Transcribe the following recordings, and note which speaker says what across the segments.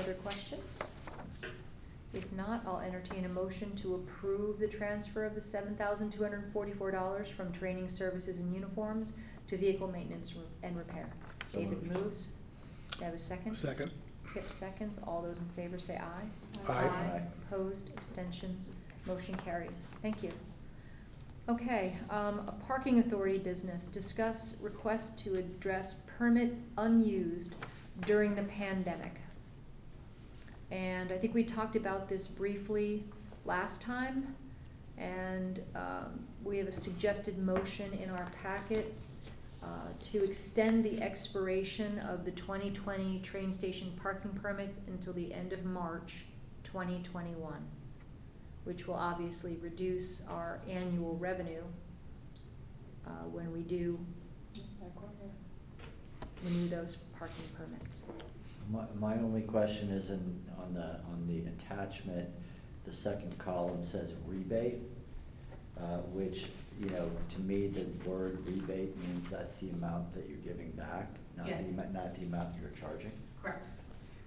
Speaker 1: further questions? If not, I'll entertain a motion to approve the transfer of the seven thousand two hundred and forty-four dollars from training services and uniforms to vehicle maintenance and repair.
Speaker 2: So
Speaker 1: David
Speaker 2: moved.
Speaker 1: moves. Do I have a second?
Speaker 3: Second.
Speaker 1: Kip seconds. All those in favor say aye.
Speaker 3: Aye.
Speaker 2: Aye.
Speaker 1: Opposed, abstentions, motion carries. Thank you. Okay, um, a parking authority business. Discuss request to address permits unused during the pandemic. And I think we talked about this briefly last time. And, um, we have a suggested motion in our packet uh, to extend the expiration of the 2020 train station parking permits until the end of March 2021, which will obviously reduce our annual revenue uh, when we do, renew those parking permits.
Speaker 2: My, my only question is in, on the, on the attachment, the second column says rebate, uh, which, you know, to me, the word rebate means that's the amount that you're giving back, not the,
Speaker 4: Yes.
Speaker 2: amo- not the amount you're charging.
Speaker 4: Correct.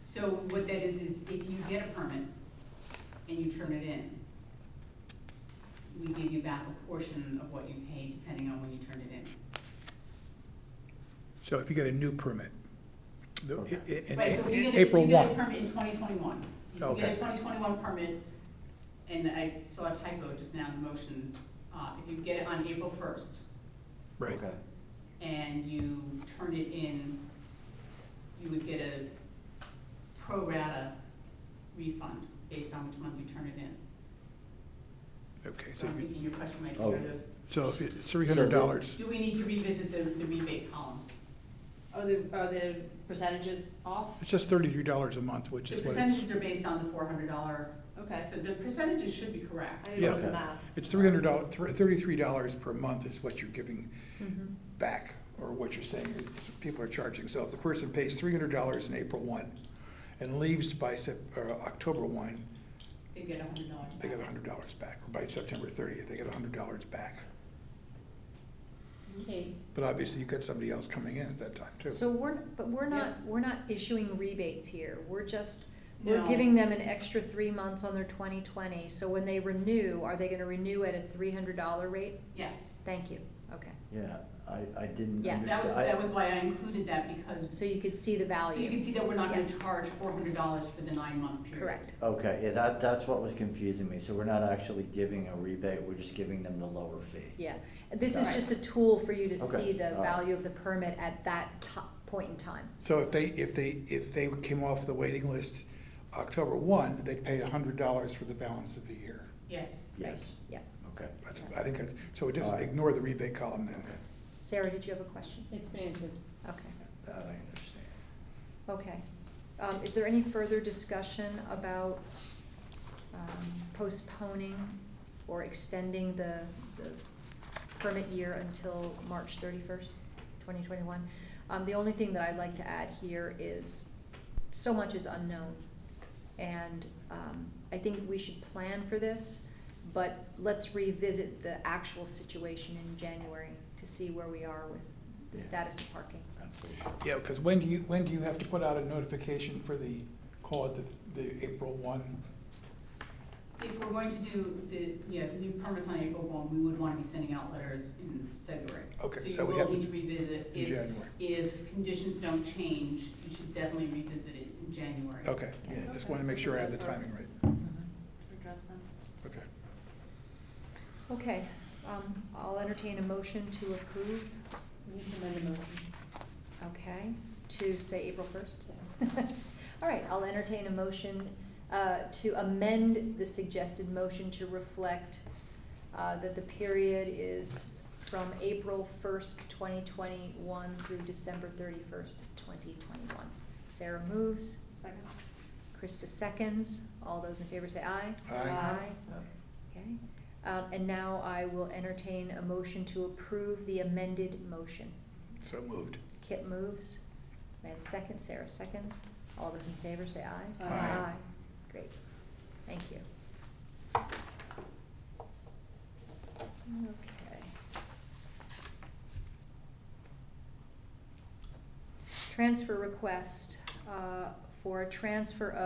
Speaker 4: So what that is, is if you get a permit and you turn it in, we give you back a portion of what you paid depending on when you turned it in.
Speaker 3: So if you get a new permit, the- i- i- in
Speaker 4: Right, so if
Speaker 3: A- in
Speaker 4: you get, a- if you
Speaker 3: April
Speaker 4: get a
Speaker 3: 1,
Speaker 4: permit in twenty twenty-one, if you get
Speaker 3: Okay.
Speaker 4: a twenty twenty-one permit, and I saw a typo just now in the motion, uh, if you get it on April first
Speaker 3: right,
Speaker 2: Okay.
Speaker 4: and you turn it in, you would get a pro rata refund based on which month you turn it in.
Speaker 3: okay.
Speaker 4: So
Speaker 3: So
Speaker 4: I'm
Speaker 3: you-
Speaker 4: thinking your question might be,
Speaker 2: Oh.
Speaker 4: are those,
Speaker 3: so if it's $300,
Speaker 4: do we need to revisit the, the rebate column?
Speaker 5: Are the, are the percentages off?
Speaker 3: it's just $33 a month, which
Speaker 4: The
Speaker 3: is what, it-
Speaker 4: percentages are based on the four hundred dollar,
Speaker 5: Okay,
Speaker 4: so the percentages should be
Speaker 5: I
Speaker 4: correct.
Speaker 5: didn't know
Speaker 2: Yeah.
Speaker 5: the math.
Speaker 3: it's $300, thir- $33 per month is what you're giving
Speaker 1: Mhm.
Speaker 3: back, or what you're saying is people are charging. So if the person pays $300 in April 1 and leaves by Sep- or October 1,
Speaker 4: They get a hundred dollars
Speaker 3: they get $100 back. Or by September 30th, they get $100 back.
Speaker 5: Okay.
Speaker 3: But obviously, you've got somebody else coming in at that time, too.
Speaker 1: So we're, but we're not, we're not issuing rebates here. We're just, we're
Speaker 4: No.
Speaker 1: giving them an extra three months on their 2020. So when they renew, are they going to renew at a $300 rate?
Speaker 4: Yes,
Speaker 1: Thank you, okay.
Speaker 2: Yeah, I, I didn't
Speaker 1: Yeah,
Speaker 2: understand.
Speaker 4: that was,
Speaker 2: I-
Speaker 4: that was why I included that because,
Speaker 1: So you could see the
Speaker 4: so you can
Speaker 1: value.
Speaker 4: see that we're not gonna
Speaker 1: Yeah.
Speaker 4: charge four hundred dollars for the nine month period.
Speaker 1: Correct.
Speaker 2: Okay, yeah, that, that's what was confusing me, so we're not actually giving a rebate, we're just giving them the lower fee.
Speaker 1: Yeah, this is
Speaker 4: Right.
Speaker 1: just a tool for you to
Speaker 2: Okay,
Speaker 1: see the
Speaker 2: all right.
Speaker 1: value of the permit at that to- point in time.
Speaker 3: So if they, if they, if they came off the waiting list October one, they'd pay a hundred dollars for the balance of the year.
Speaker 4: Yes,
Speaker 2: Yes,
Speaker 1: Yeah.
Speaker 2: okay,
Speaker 3: That's, I think, it- so it doesn't
Speaker 2: Alright.
Speaker 3: ignore the rebate column then.
Speaker 2: okay,
Speaker 1: Sarah, did you have a question?
Speaker 5: It's been answered.
Speaker 1: Okay,
Speaker 2: that I understand.
Speaker 1: okay. Um, is there any further discussion about, um, postponing or extending the, the permit year until March thirty-first, twenty twenty-one? Um, the only thing that I'd like to add here is, so much is unknown. And um, I think we should plan for this, but let's revisit the actual situation in January to see where we are with the
Speaker 2: Yeah.
Speaker 1: status of parking.
Speaker 2: Absolutely.
Speaker 3: Yeah, because when do you, when do you have to put out a notification for the, call it the, the April one?
Speaker 4: if we're going to do the, yeah, new permits on April one, we would wanna be sending out letters in February.
Speaker 3: Okay, so we
Speaker 4: you
Speaker 3: have
Speaker 4: will
Speaker 3: to-
Speaker 4: need to revisit
Speaker 3: in
Speaker 4: if
Speaker 3: January.
Speaker 4: If conditions don't change, you should definitely revisit it in January.
Speaker 3: Okay,
Speaker 1: Yeah.
Speaker 3: just want to make sure I have the timing right.
Speaker 5: Address them.
Speaker 3: Okay.
Speaker 1: Okay, um, I'll entertain a motion to approve,
Speaker 5: You can amend the motion.
Speaker 1: okay, to say April first? All right, I'll entertain a motion uh, to amend the suggested motion to reflect uh, that the period is from April first, twenty twenty-one through December thirty-first, twenty twenty-one. Sarah moves,
Speaker 5: Second.
Speaker 1: Krista seconds, all those in favor say aye.
Speaker 3: Aye.
Speaker 2: Yeah.
Speaker 1: Okay, Um, and now I will entertain a motion to approve the amended motion.
Speaker 3: So moved.
Speaker 1: Kip moves. May I have a second? Sarah seconds. All those in favor say aye.
Speaker 5: Aye.
Speaker 3: Aye.
Speaker 1: Great. Thank you. Okay. Transfer request, uh, for a transfer of.